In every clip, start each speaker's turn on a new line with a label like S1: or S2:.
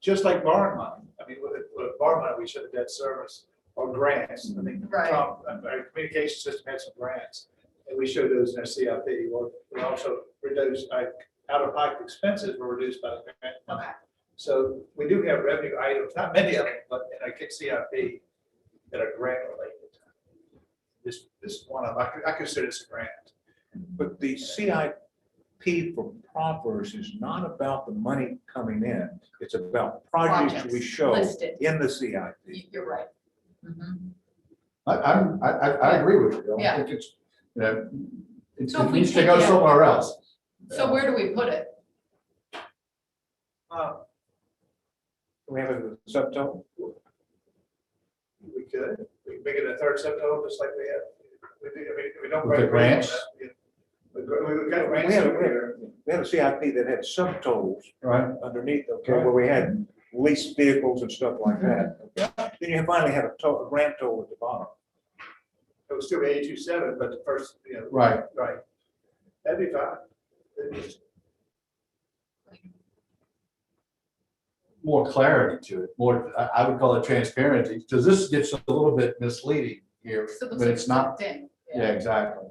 S1: just like borrowing money. I mean, with, with borrowing money, we should have debt service or grants. I think
S2: Right.
S1: Trump- uh, Our communication system had some grants, and we showed those in our CIP. Well, We also reduced, our out-of-pocket expenses were reduced by the grant money.
S2: Okay.
S1: So we do have revenue items, not many of them, but in our CIP that are grant related. This, this one, I, I consider this a grant.
S3: But the CIP for Proffers is not about the money coming in. It's about projects we
S2: Projects
S3: show
S2: listed.
S3: in the CIP.
S2: You- You're right. Mhm.
S4: I, I'm, I, I, I agree with you.
S2: Yeah.
S4: I don't think it's, you know, it
S2: So if
S4: it
S2: we
S4: needs to
S2: take
S4: go
S2: it out-
S4: somewhere else.
S2: So where do we put it?
S1: Uh,
S3: We have a subtotal?
S1: We could, we could make it a third subtotal, just like we have. We do, I mean, we don't.
S4: With the grants?
S1: We have got
S3: We
S1: grants
S3: had,
S1: over here.
S3: a- we had a CIP that had subtotals
S4: Right.
S3: underneath, okay, where we had leased vehicles and stuff like that. okay? Then you finally had a total, grand total at the bottom.
S1: It was still eighty-two seven, but the first, you know,
S4: Right,
S1: right. That'd be fine. It'd be-
S4: more clarity to it, more, I, I would call it transparency, because this gets a little bit misleading here,
S2: So it looks like
S4: but it's not,
S2: thin.
S4: yeah, exactly.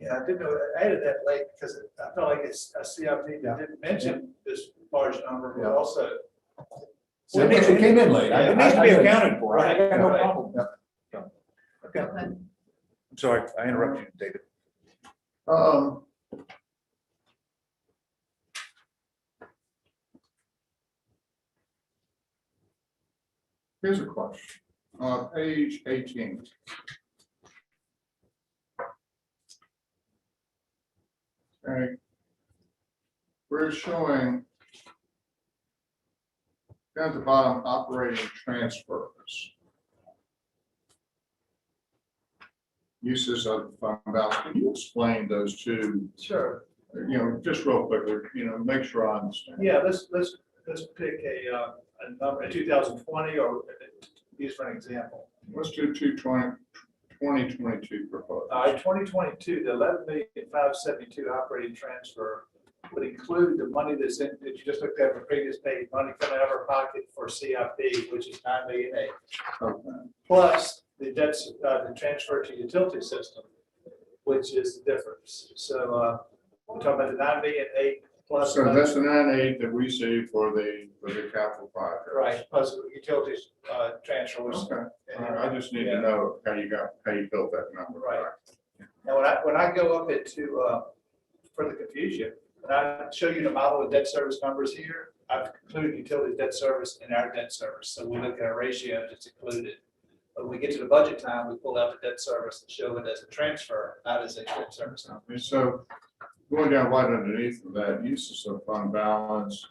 S1: Yeah, I didn't know, I added that late because I felt like it's a CIP that didn't mention this large number, but
S4: Yeah.
S1: also.
S4: So it
S3: needs-
S4: came in late. I-
S3: It needs to be
S4: I- I-
S3: accounted for. I got no
S1: Right.
S3: problem. Yeah. Okay,
S2: Okay.
S3: I'm sorry, I interrupted you, David.
S4: Um. Here's a question, on page eighteen. Okay. We're showing down at the bottom, operating transfers. Uses of fund balance, can you explain those two
S1: Sure.
S4: you know, just real quick, you know, make sure I understand.
S1: Yeah, let's, let's, let's pick a, uh, a number, a two thousand twenty or uh, use for an example.
S4: Let's do two twenty, twenty twenty-two proposal.
S1: All right, Uh, twenty twenty-two, the eleven million five seventy-two operating transfer would include the money that's in, that you just looked at the previous page, money coming out of our pocket for CIP, which is nine million eight,
S4: Okay.
S1: plus the debts, uh, the transfer to utility system, which is the difference. So, uh, we're talking about the nine million eight plus.
S4: So that's the nine eight that we see for the, for the capital project.
S1: Right, plus the utilities, uh, transfer, which
S4: Okay, All right, I just need to know how you got, how you built that number.
S1: Right. And when I, when I go up into, uh, for the confusion, when I show you the model of debt service numbers here, I've included utility debt service in our debt service, so we look at our ratio that's included. But When we get to the budget time, we pull out the debt service and show it as a transfer, not as a debt service number.
S4: And so going down right underneath of that, uses of fund balance,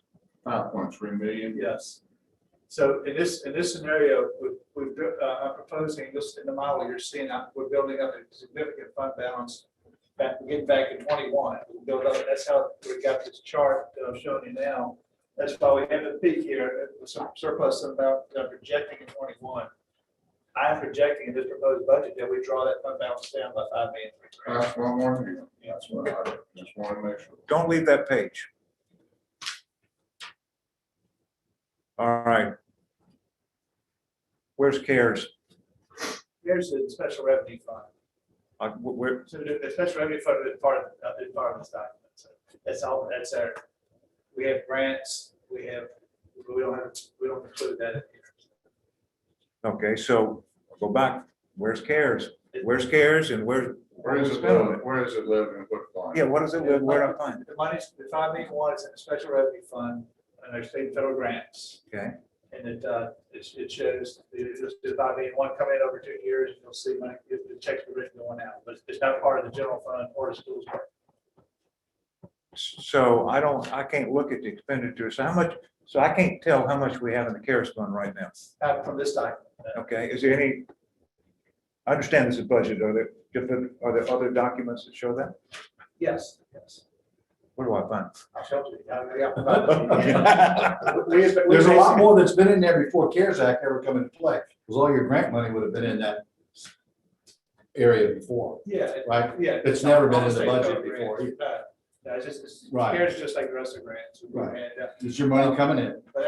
S4: five point three million.
S1: Yes. So in this, in this scenario, we- we've, uh, I'm proposing this in the model you're seeing, uh, we're building up a significant fund balance. Back, getting back in twenty-one, we build up, that's how we got this chart that I'm showing you now. That's why we have a peak here, uh, sur- surplus about uh, projecting in twenty-one. I'm projecting in this proposed budget that we draw that fund balance down by five million.
S4: That's one more thing.
S1: Yeah, that's
S4: That's what I just want to make sure.
S3: Don't leave that page. All right. Where's CARES?
S1: Here's the special revenue fund.
S3: Uh, wh- where,
S1: So the, the special revenue fund is part of, uh, is part of this document, so that's all, that's our, we have grants, we have, we don't have, we don't include that in here.
S3: okay, so go back. Where's CARES? Where's CARES and where's?
S4: Where is it live? Where is it live and what line?
S3: Yeah, what is it? Where- Where do I find it?
S1: The money's, the five million one is in the special revenue fund, and there's state and federal grants,
S3: Okay,
S1: and it, uh, it, it shows, the the five million one coming in over two years, and you'll see money, the the checks are written going out, but it's not part of the general fund or the schools. budget.
S3: so I don't, I can't look at the expenditures. How much, so I can't tell how much we have in the CARES fund right now.
S1: Not from this document, uh,
S3: Okay, is there any? I understand this is budget. Are there different, are there other documents that show that?
S1: yes, yes,
S3: Where do I find?
S1: I'll show you. I-
S3: it?
S1: I- We- we-
S4: There's a lot more that's been in there before CARES Act ever come into play, because all your grant money would have been in that area before,
S1: Yeah, it-
S4: right?
S1: yeah.
S4: It's never been in the
S1: State
S4: budget
S1: program.
S4: before.
S1: Uh, No, it's just, it's,
S4: Right.
S1: CARES is just like the rest of grants.
S4: Right.
S1: And, uh,
S4: Is your money coming in?
S1: But